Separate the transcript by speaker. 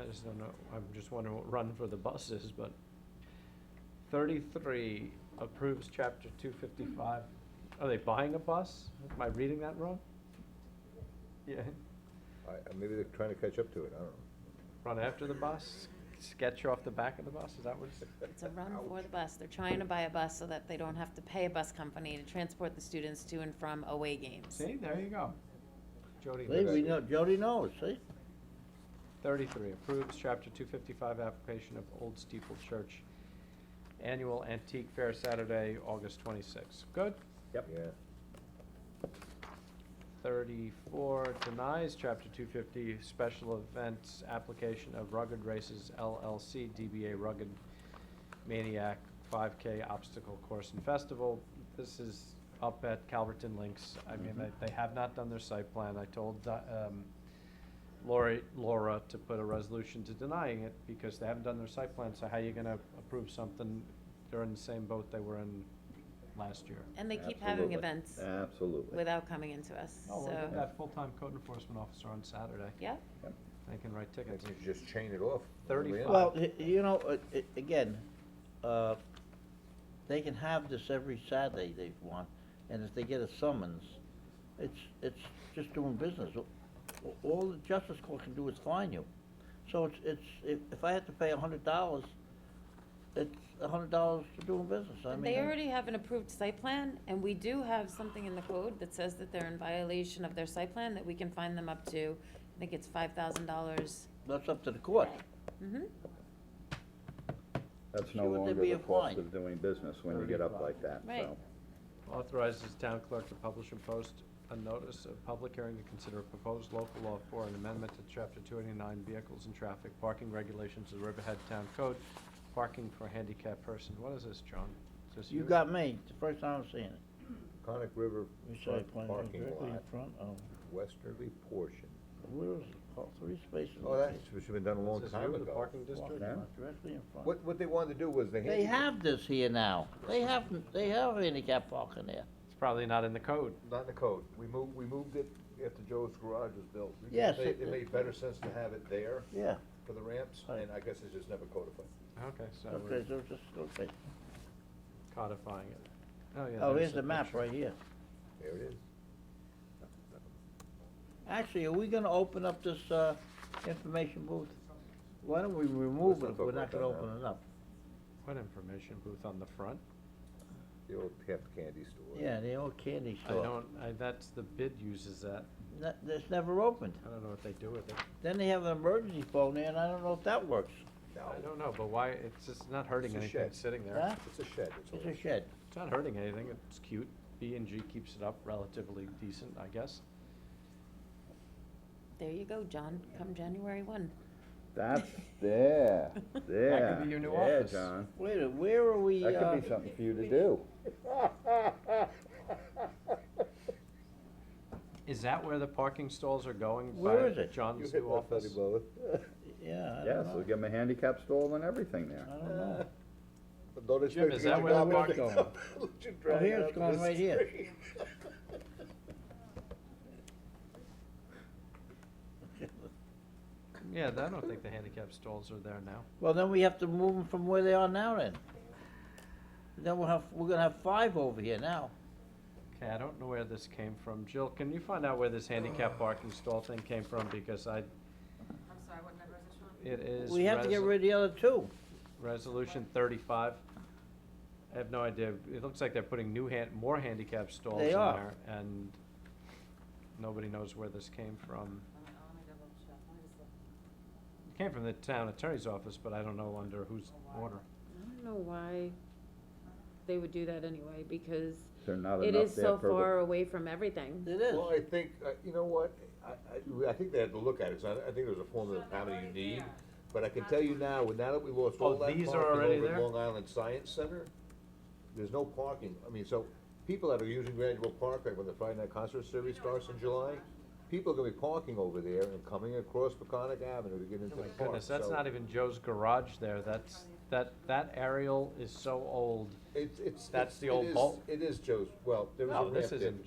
Speaker 1: I just don't know, I'm just wondering what run for the bus is, but thirty-three approves chapter two fifty-five. Are they buying a bus? Am I reading that wrong? Yeah,
Speaker 2: I, I- maybe they're trying to catch up to it, I don't know.
Speaker 1: run after the bus, sketch off the back of the bus, is that what it's?
Speaker 3: It's a run for
Speaker 2: Ouch.
Speaker 3: the bus. They're trying to buy a bus so that they don't have to pay a bus company to transport the students to and from away games.
Speaker 1: See, there you go. Jody.
Speaker 4: See,
Speaker 1: knows.
Speaker 4: we know, Jody knows, see?
Speaker 1: Thirty-three, approves chapter two fifty-five application of Old Steeple Church Annual Antique Fair Saturday, August twenty-sixth. Good.
Speaker 2: Yep. Yeah.
Speaker 1: Thirty-four, denies chapter two fifty special events application of Rugged Races LLC, DBA Rugged Maniac five K Obstacle Course and Festival. This is up at Calverton Links. I mean,
Speaker 4: Mhm.
Speaker 1: they, they have not done their site plan. I told, uh, um, Lori, Laura to put a resolution to denying it because they haven't done their site plan, so how you gonna approve something? They're in the same boat they were in last year.
Speaker 3: And they keep having
Speaker 2: Absolutely.
Speaker 3: events
Speaker 2: Absolutely.
Speaker 3: without coming into us,
Speaker 1: Oh, we'll get
Speaker 3: so,
Speaker 1: that full-time code enforcement officer on Saturday.
Speaker 3: yeah.
Speaker 2: Yep.
Speaker 1: They can write
Speaker 2: Maybe
Speaker 1: tickets.
Speaker 2: you should just chain it off. all the way in.
Speaker 1: Thirty-five.
Speaker 4: Well, y- you know, uh, i- again, uh, they can have this every Saturday they want, and if they get a summons, it's, it's just doing business. A- All the justice court can do is fine you. So it's, it's, if, if I had to pay a hundred dollars, it's a hundred dollars for doing business, I mean.
Speaker 3: They
Speaker 4: I-
Speaker 3: already have an approved site plan, and we do have something in the code that says that they're in violation of their site plan, that we can fine them up to, I think it's five thousand dollars.
Speaker 4: That's up to the court.
Speaker 3: Mm-hmm.
Speaker 5: That's
Speaker 4: See
Speaker 5: no
Speaker 4: what they'd
Speaker 5: longer
Speaker 4: be
Speaker 5: the cost
Speaker 4: applying.
Speaker 5: of doing business when you get up like that,
Speaker 3: Right.
Speaker 5: so.
Speaker 1: Authorizes town clerk to publish and post a notice of public hearing to consider a proposed local law for an amendment to chapter two eighty-nine vehicles and traffic parking regulations of the Riverhead Town Code, parking for handicapped person. What is this, John? Is this
Speaker 4: You got me, it's the first time I'm seeing it.
Speaker 2: Conic River
Speaker 4: You say
Speaker 2: front
Speaker 4: plan
Speaker 2: parking
Speaker 4: directly in
Speaker 2: lot,
Speaker 4: front of-
Speaker 2: westerly portion.
Speaker 4: Where is it? Oh, three spaces.
Speaker 2: Oh, that's, should have been done a
Speaker 1: This
Speaker 2: long
Speaker 1: is
Speaker 2: time
Speaker 1: you, the
Speaker 2: ago.
Speaker 1: Parking
Speaker 4: Walking
Speaker 1: district?
Speaker 4: lot Directly in front.
Speaker 2: What, what they wanted to do was they.
Speaker 4: They have this here now. They have, they have handicap parking there.
Speaker 1: It's probably not in the code.
Speaker 2: Not in the code. We moved, we moved it after Joe's Garage was built. We just
Speaker 4: Yes,
Speaker 2: made-
Speaker 4: it-
Speaker 2: It made better sense to have it there
Speaker 4: Yeah.
Speaker 2: for the ramps,
Speaker 4: Right.
Speaker 2: and I guess it's just never codified.
Speaker 1: Okay, so we're
Speaker 4: Okay, so just, okay.
Speaker 1: codifying it. Oh, yeah.
Speaker 4: Oh,
Speaker 1: there's
Speaker 4: here's the map
Speaker 1: picture.
Speaker 4: right here.
Speaker 2: There it is.
Speaker 4: Actually, are we gonna open up this, uh, information booth? Why don't we
Speaker 2: Let's
Speaker 4: remove
Speaker 2: not
Speaker 4: it if
Speaker 2: talk
Speaker 4: we're
Speaker 2: about
Speaker 4: not gonna
Speaker 2: that now.
Speaker 4: open it up?
Speaker 1: What information booth on the front?
Speaker 2: The old half candy store.
Speaker 4: Yeah, the old candy
Speaker 1: I
Speaker 4: store.
Speaker 1: don't, I, that's, the bid uses that.
Speaker 4: That, that's never opened.
Speaker 1: I don't know what they do with it.
Speaker 4: Then they have an emergency phone there, and I don't know if that works.
Speaker 1: I
Speaker 2: No,
Speaker 1: don't know, but why, it's just not hurting
Speaker 2: It's a
Speaker 1: anything
Speaker 2: shed.
Speaker 1: sitting there.
Speaker 4: Huh?
Speaker 2: it's a shed, it's all.
Speaker 4: It's a shed.
Speaker 1: It's not hurting anything, it's cute. B and G keeps it up relatively decent, I guess.
Speaker 3: There you go, John, come January one.
Speaker 5: That's, there, there.
Speaker 1: be your new
Speaker 5: Yeah,
Speaker 1: office.
Speaker 5: John.
Speaker 4: Wait, a- where are we, uh?
Speaker 5: That could be something for you to do.
Speaker 1: Is that where the parking stalls are going?
Speaker 4: Where
Speaker 1: by
Speaker 4: is it?
Speaker 2: You
Speaker 1: John's
Speaker 2: hit
Speaker 1: new
Speaker 2: my funny
Speaker 1: office?
Speaker 2: bone.
Speaker 4: Yeah, I
Speaker 5: Yeah,
Speaker 4: don't
Speaker 5: so
Speaker 4: know.
Speaker 5: give them a handicap stall and everything there.
Speaker 4: I don't know.
Speaker 2: But Don't
Speaker 1: Jim,
Speaker 2: expect
Speaker 1: is
Speaker 2: me
Speaker 1: that
Speaker 2: to
Speaker 1: where the
Speaker 2: grab
Speaker 1: market
Speaker 2: it.
Speaker 4: going?
Speaker 2: Let you drag
Speaker 4: Oh, here
Speaker 2: it
Speaker 4: it's
Speaker 2: up
Speaker 4: going
Speaker 2: the
Speaker 4: right here.
Speaker 2: street.
Speaker 1: Yeah, I don't think the handicap stalls are there now.
Speaker 4: Well, then we have to move them from where they are now then. Then we'll have, we're gonna have five over here now.
Speaker 1: Okay, I don't know where this came from. Jill, can you find out where this handicap parking stall thing came from? Because I,
Speaker 6: I'm sorry, what number is this one?
Speaker 1: it is.
Speaker 4: We have to get
Speaker 1: resi-
Speaker 4: rid of the other two.
Speaker 1: Resolution thirty-five. I have no idea. It looks like they're putting new han, more handicap stalls in
Speaker 4: They
Speaker 1: there.
Speaker 4: are.
Speaker 1: And nobody knows where this came from.
Speaker 6: Let me, let me double check, let me just look.
Speaker 1: It came from the town attorney's office, but I don't know under whose order.
Speaker 7: I don't know why they would do that anyway, because
Speaker 5: They're not
Speaker 7: it
Speaker 5: enough
Speaker 7: is
Speaker 5: there
Speaker 7: so
Speaker 5: per the-
Speaker 7: far away from everything.
Speaker 4: It
Speaker 2: Well,
Speaker 4: is.
Speaker 2: I think, uh, you know what, I, I, I think they had to look at it, so I, I think there's a formula of how many you need. But I can tell you now, with- now that we lost all
Speaker 1: Oh,
Speaker 2: that
Speaker 1: these are
Speaker 2: parking
Speaker 1: already
Speaker 2: over at
Speaker 1: there?
Speaker 2: Long Island Science Center, there's no parking, I mean, so, people that are using Granville Park, like when the Friday Night Concert Series starts in July, people are gonna be parking over there and coming across Peconic Avenue to get into
Speaker 1: Oh
Speaker 2: the
Speaker 1: my
Speaker 2: park,
Speaker 1: goodness, that's
Speaker 2: so
Speaker 1: not even Joe's garage there. That's, that, that aerial is so old.
Speaker 2: It's, it's. it's-
Speaker 1: that's the
Speaker 2: it
Speaker 1: old
Speaker 2: is-
Speaker 1: vault.
Speaker 2: It is Joe's, well, there was a
Speaker 1: No,
Speaker 2: ramp
Speaker 1: this
Speaker 2: there.
Speaker 1: isn't